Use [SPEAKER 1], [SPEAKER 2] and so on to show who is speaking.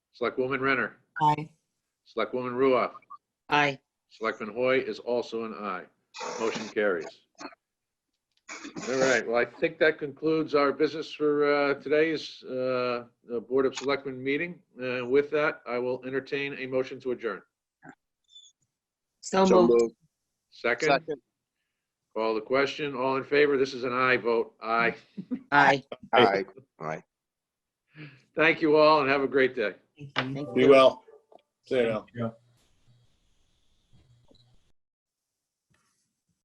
[SPEAKER 1] Selectwoman Renner.
[SPEAKER 2] Aye.
[SPEAKER 1] Selectwoman Ruoff.
[SPEAKER 3] Aye.
[SPEAKER 1] Selectman Hoy is also an aye. Motion carries. All right, well, I think that concludes our business for uh, today's uh, uh, Board of Selectmen meeting. Uh, With that, I will entertain a motion to adjourn.
[SPEAKER 3] So
[SPEAKER 4] So
[SPEAKER 3] moved.
[SPEAKER 4] moved.
[SPEAKER 1] Second,
[SPEAKER 4] Second.
[SPEAKER 1] call the question. All in favor? This is an aye vote. Aye.
[SPEAKER 3] Aye.
[SPEAKER 4] All right, all right.
[SPEAKER 1] Thank you all and have a great day.
[SPEAKER 2] Thank you.
[SPEAKER 3] Thank
[SPEAKER 5] Be
[SPEAKER 3] you.
[SPEAKER 5] well. See you now.